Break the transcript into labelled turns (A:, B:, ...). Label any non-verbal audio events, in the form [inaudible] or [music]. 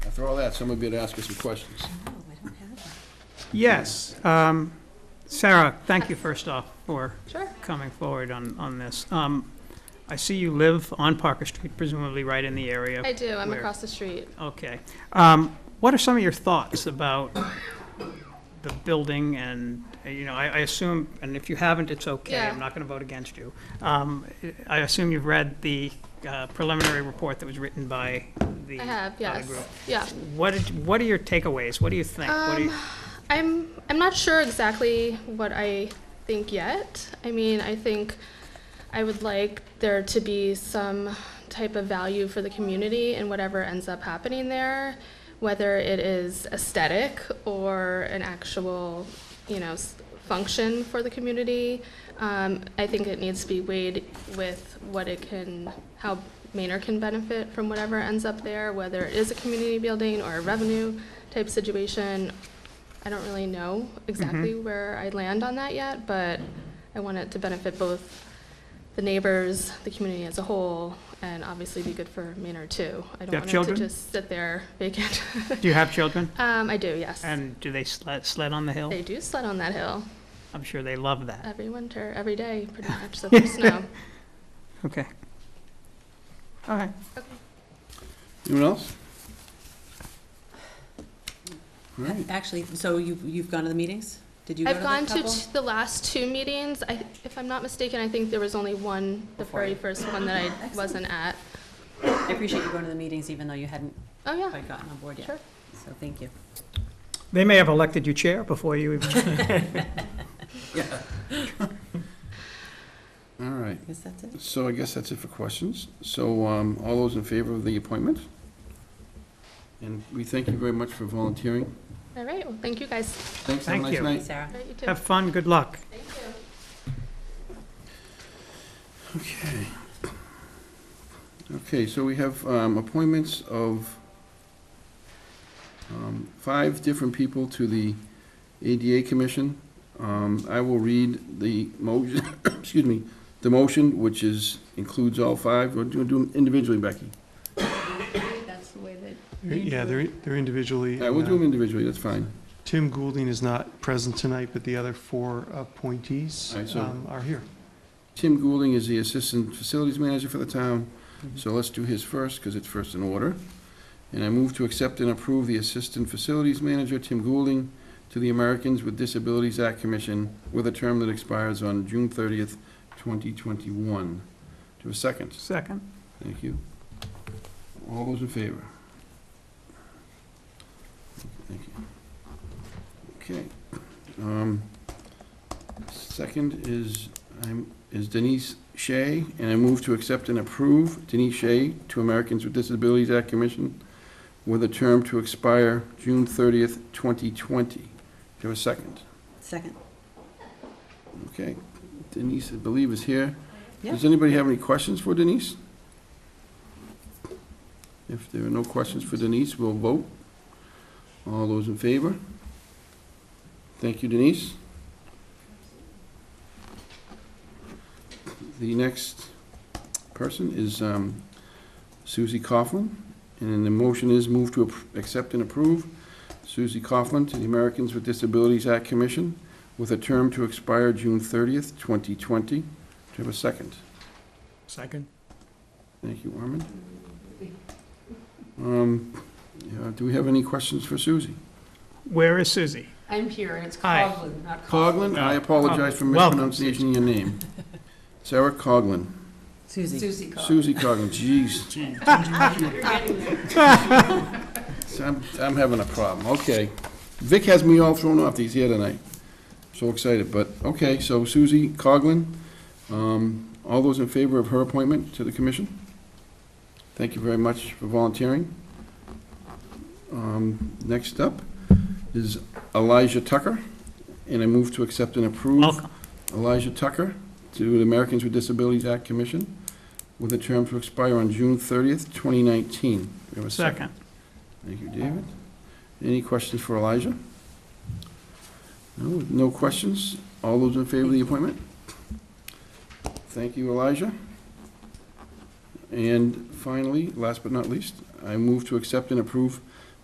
A: After all that, someone would be able to ask us some questions.
B: No,
C: Oh,
B: I don't have it.
D: Yes. um, Sarah, thank you first off for
B: Sure.
D: coming forward on, on this. Um, I see you live on Parker Street, presumably right in the area.
B: I do, I'm
D: Where?
B: across the street.
D: Okay. Um, What are some of your thoughts about the building and, uh, you know, I, I assume, and if you haven't, it's okay.
B: Yeah.
D: I'm not going to vote against you. Um, I assume you've read the uh, preliminary report that was written by the
B: I have,
D: other
B: yes,
D: group.
B: yeah.
D: What, did- what are your takeaways? What do you think? What do you-
B: Um, I'm I'm not sure exactly what I think yet. I mean, I think I would like there to be some type of value for the community in whatever ends up happening there, whether it is aesthetic or an actual, you know, s- function for the community. Um, I think it needs to be weighed with what it can, how Maynard can benefit from whatever ends up there, whether it is a community building or a revenue type situation, I don't really know exactly
D: Mm-hmm.
B: where I land on that yet, but I want it to benefit both the neighbors, the community as a whole, and obviously be good for Maynard too. I
D: Do you have
B: don't want it
D: children?
B: to just sit there vacant. [laughs]
D: Do you have children?
B: Um, I do, yes.
D: And do they sled, sled on the hill?
B: They do sled on that hill
D: I'm sure they love that.
B: every winter, every day,
D: [laughs]
B: pretty much, so there's snow.
D: Okay. All right.
A: Anyone else? All right.
C: Actually, so you've, you've gone to the meetings? Did you go to
B: I've
C: the
B: gone
C: couple?
B: to t- the last two meetings. I, if I'm not mistaken, I think there was only one, the
C: Before
B: very
C: you.
B: first one that
C: [laughs]
B: I wasn't at.
C: I appreciate you going to the meetings, even though you hadn't
B: Oh, yeah,
C: quite gotten on board yet.
B: Sure.
C: So thank you.
D: They may have elected you chair before you even.
A: All right.
C: I guess that's it.
A: So I guess that's it for questions. So um, all those in favor of the appointment? And we thank you very much for volunteering.
B: all right, well, thank you guys.
A: Thanks, have a
D: Thank
A: nice
D: you.
A: night.
C: Sarah?
B: All right, you too.
D: Have fun, good luck.
B: Thank you.
A: Okay. Okay, so we have um, appointments of um, five different people to the ADA Commission. Um, I will read the motion, [coughs] excuse me, the motion, which is, includes all five. Or do you do them individually, Becky?
B: That's the way that.
E: Yeah, they're, they're individually.
A: Yeah, we'll
E: and,
A: do them
E: uh,
A: individually, that's fine.
E: Tim Goulding is not present tonight, but the other four appointees
A: All right, so-
E: um, are here.
A: Tim Goulding is the Assistant Facilities Manager for the town, so let's do his first, because it's first in order. And I move to accept and approve the Assistant Facilities Manager, Tim Goulding, to the Americans with Disabilities Act Commission with a term that expires on June thirtieth, twenty twenty-one. To a second.
D: Second.
A: Thank you. All those in favor? Thank you. Okay. um, Second is, I'm, is Denise Shea, and I move to accept and approve Denise Shea to Americans with Disabilities Act Commission with a term to expire June thirtieth, twenty twenty. Do you have a second?
C: Second.
A: Okay. Denise, I believe, is here.
C: Yeah.
A: Does anybody have any questions for Denise? If there are no questions for Denise, we'll vote. All those in favor? Thank you, Denise. The next person is um, Susie Coughlin, and the motion is move to appro- accept and approve Susie Coughlin to the Americans with Disabilities Act Commission with a term to expire June 30th, 2020. Do you have a second?
D: Second.
A: Thank you, Armin. Um, yeah, Do we have any questions for Susie?
D: Where is Susie?
F: I'm here, and it's
D: Hi.
F: Coughlin, not
A: Coglin, I apologize for
D: Welcome.
A: mispronunciation of your name. Sarah Coglin,
C: Susie?
F: Susie Coughlin.
A: Susie Coglin, jeez. [laughs] So I'm, I'm having a problem, okay. Vic has me all thrown off, he's here tonight. So excited, but, okay, so Susie Coglin, um, all those in favor of her appointment to the commission? Thank you very much for volunteering. Um, Next up is Elijah Tucker, and I move to accept and approve.
D: Welcome.
A: Elijah Tucker to the Americans with Disabilities Act Commission with a term to expire on June 30th, 2019. Do we have a
D: Second.
A: Thank you, David. Any questions for Elijah? No, no questions? All those in favor of the appointment? Thank you, Elijah. And finally, last but not least, I move to accept and approve